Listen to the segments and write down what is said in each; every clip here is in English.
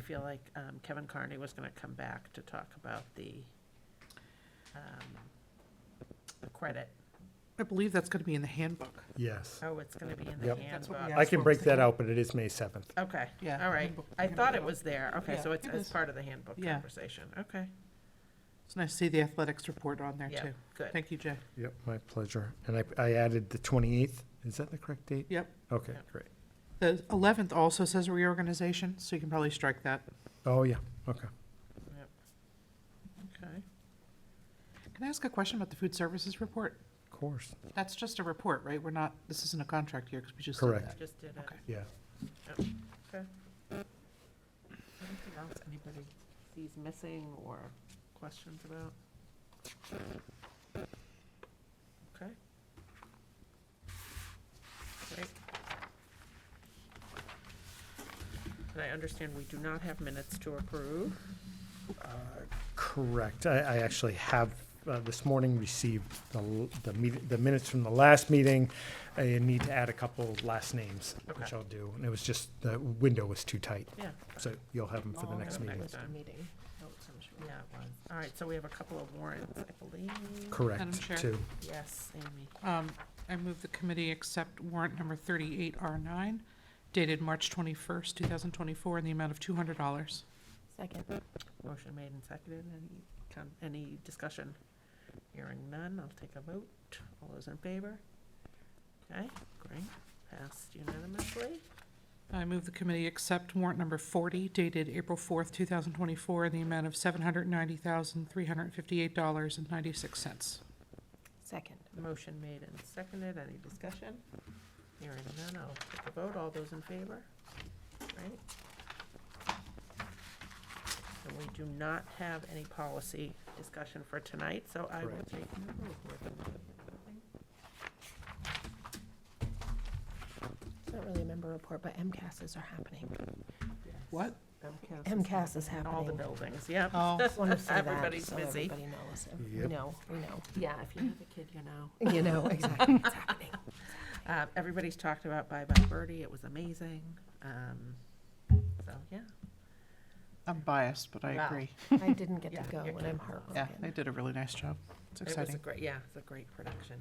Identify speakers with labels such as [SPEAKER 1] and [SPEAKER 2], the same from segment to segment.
[SPEAKER 1] feel like um, Kevin Carney was gonna come back to talk about the, um, the credit.
[SPEAKER 2] I believe that's gonna be in the handbook.
[SPEAKER 3] Yes.
[SPEAKER 1] Oh, it's gonna be in the
[SPEAKER 3] Yep.
[SPEAKER 2] That's what
[SPEAKER 1] handbook.
[SPEAKER 2] we asked.
[SPEAKER 3] I
[SPEAKER 2] what
[SPEAKER 3] can
[SPEAKER 2] I'm
[SPEAKER 3] break that
[SPEAKER 2] thinking.
[SPEAKER 3] out, but it is May 7th.
[SPEAKER 1] Okay,
[SPEAKER 2] Yeah,
[SPEAKER 1] all
[SPEAKER 2] the
[SPEAKER 1] right.
[SPEAKER 2] handbook-
[SPEAKER 1] I
[SPEAKER 2] handbook
[SPEAKER 1] thought it
[SPEAKER 2] out.
[SPEAKER 1] was there. Okay,
[SPEAKER 2] Yeah,
[SPEAKER 1] so it's
[SPEAKER 2] it
[SPEAKER 1] as
[SPEAKER 2] is.
[SPEAKER 1] part of the handbook
[SPEAKER 2] Yeah.
[SPEAKER 1] conversation. Oh, Okay,
[SPEAKER 2] It's nice to see the athletics report on there
[SPEAKER 1] yeah,
[SPEAKER 2] too.
[SPEAKER 1] good.
[SPEAKER 2] Thank you, Jay.
[SPEAKER 3] Yep, my pleasure. And I, I added the 28th. Is that the correct date?
[SPEAKER 2] Yep.
[SPEAKER 3] Okay,
[SPEAKER 1] Yep.
[SPEAKER 3] great.
[SPEAKER 2] The eleventh also says reorganization, so you can probably strike that.
[SPEAKER 3] Oh, yeah, okay.
[SPEAKER 1] Okay.
[SPEAKER 2] Can I ask a question about the food services report?
[SPEAKER 3] Of course.
[SPEAKER 2] That's just a report, right? We're not, this isn't a contract year, because we just did
[SPEAKER 3] Correct.
[SPEAKER 2] that.
[SPEAKER 1] Just did it.
[SPEAKER 2] Okay.
[SPEAKER 3] Yeah.
[SPEAKER 1] Anything else anybody sees missing or questions about? Okay. Great. And I understand we do not have minutes to approve.
[SPEAKER 3] Uh, Correct. I, I actually have, uh, this morning, received the, l- the meet- the minutes from the last meeting. I need to add a couple last names, which
[SPEAKER 1] Okay.
[SPEAKER 3] I'll do. And it was just, the window was too tight,
[SPEAKER 1] Yeah.
[SPEAKER 3] so you'll have them for the
[SPEAKER 1] Oh,
[SPEAKER 3] next
[SPEAKER 1] okay.
[SPEAKER 3] meeting.
[SPEAKER 1] Next time.
[SPEAKER 4] Meeting notes, I'm sure.
[SPEAKER 1] Yeah, it was. All right, so we have a couple of warrants, I believe.
[SPEAKER 2] Madam
[SPEAKER 3] Correct,
[SPEAKER 2] Chair.
[SPEAKER 3] too.
[SPEAKER 1] Yes, Amy.
[SPEAKER 2] Um, I move the committee accept warrant number thirty-eight R nine dated March twenty-first, two thousand twenty-four, in the amount of two hundred dollars.
[SPEAKER 4] Second.
[SPEAKER 1] Motion made and seconded. Any, con- any discussion? Hearing none, I'll take a vote. All those in favor? Okay, great. Passed unanimously.
[SPEAKER 2] I move the committee accept warrant number forty dated April fourth, two thousand twenty-four, in the amount of seven hundred ninety thousand, three hundred fifty-eight dollars and ninety-six cents.
[SPEAKER 4] Second.
[SPEAKER 1] Motion made and seconded. Any discussion? Hearing none, I'll take a vote. All those in favor? Right? And we do not have any policy discussion for tonight, so I will
[SPEAKER 3] Correct.
[SPEAKER 1] take no vote with
[SPEAKER 4] It's not really a member report, but MCASs are happening.
[SPEAKER 2] What?
[SPEAKER 4] MCAS is happening.
[SPEAKER 1] All the buildings, yep.
[SPEAKER 2] Oh.
[SPEAKER 4] Just wanted to say that,
[SPEAKER 1] Everybody's
[SPEAKER 4] so
[SPEAKER 1] busy.
[SPEAKER 4] Everybody knows. We
[SPEAKER 3] Yep.
[SPEAKER 4] know, we know.
[SPEAKER 1] Yeah, if you have a kid, you know.
[SPEAKER 4] You know, exactly. It's happening.
[SPEAKER 1] Uh, everybody's talked about Bye Bye Birdie. It was amazing. Um, so yeah,
[SPEAKER 2] I'm biased, but I
[SPEAKER 1] Wow.
[SPEAKER 2] agree.
[SPEAKER 4] I didn't get
[SPEAKER 1] Yeah,
[SPEAKER 4] to go
[SPEAKER 1] you're
[SPEAKER 4] and
[SPEAKER 1] kidding.
[SPEAKER 4] I'm
[SPEAKER 2] Yeah,
[SPEAKER 4] heartbroken.
[SPEAKER 2] they did a really nice job. It's
[SPEAKER 1] it was a
[SPEAKER 2] exciting.
[SPEAKER 1] great. Yeah, it's a great production.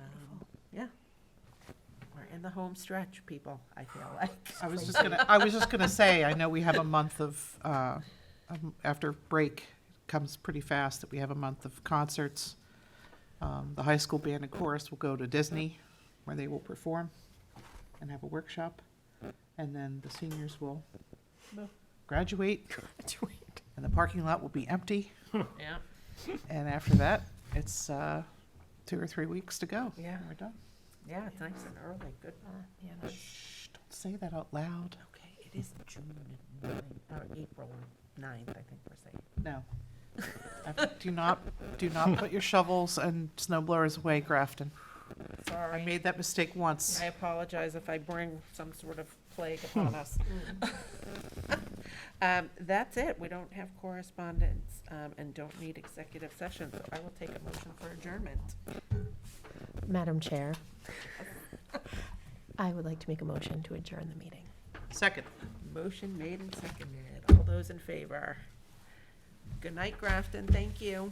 [SPEAKER 1] Um,
[SPEAKER 4] Beautiful.
[SPEAKER 1] yeah, we're in the home stretch, people. I feel like.
[SPEAKER 2] I was just gonna, I was just gonna say, I know we have a month of, uh, um, after break comes pretty fast, that we have a month of concerts. Um, The high school band and chorus will go to Disney, where they will perform and have a workshop. And then the seniors will
[SPEAKER 1] No.
[SPEAKER 2] graduate, and the parking lot will be empty.
[SPEAKER 1] Yeah,
[SPEAKER 2] And after that, it's uh, two or three weeks to go.
[SPEAKER 1] Yeah.
[SPEAKER 2] and We're done.
[SPEAKER 1] yeah, it's nice and early. Good.
[SPEAKER 4] Uh, yeah, no.
[SPEAKER 2] Shh, don't say that out loud.
[SPEAKER 1] Okay, it is June 9th, or April 9th, I think we're saying.
[SPEAKER 2] No. I've- Do not, do not put your shovels and snow blowers away, Grafton. I
[SPEAKER 1] Sorry,
[SPEAKER 2] made that mistake once.
[SPEAKER 1] I apologize if I bring some sort of plague
[SPEAKER 2] Hmm.
[SPEAKER 1] upon us. Um, that's it. We don't have correspondence, um, and don't need executive session, so I will take a motion for adjournment.
[SPEAKER 4] Madam Chair, I would like to make a motion to adjourn the meeting.
[SPEAKER 2] Second.
[SPEAKER 1] Motion made and seconded. All those in favor? Good night, Grafton. Thank you.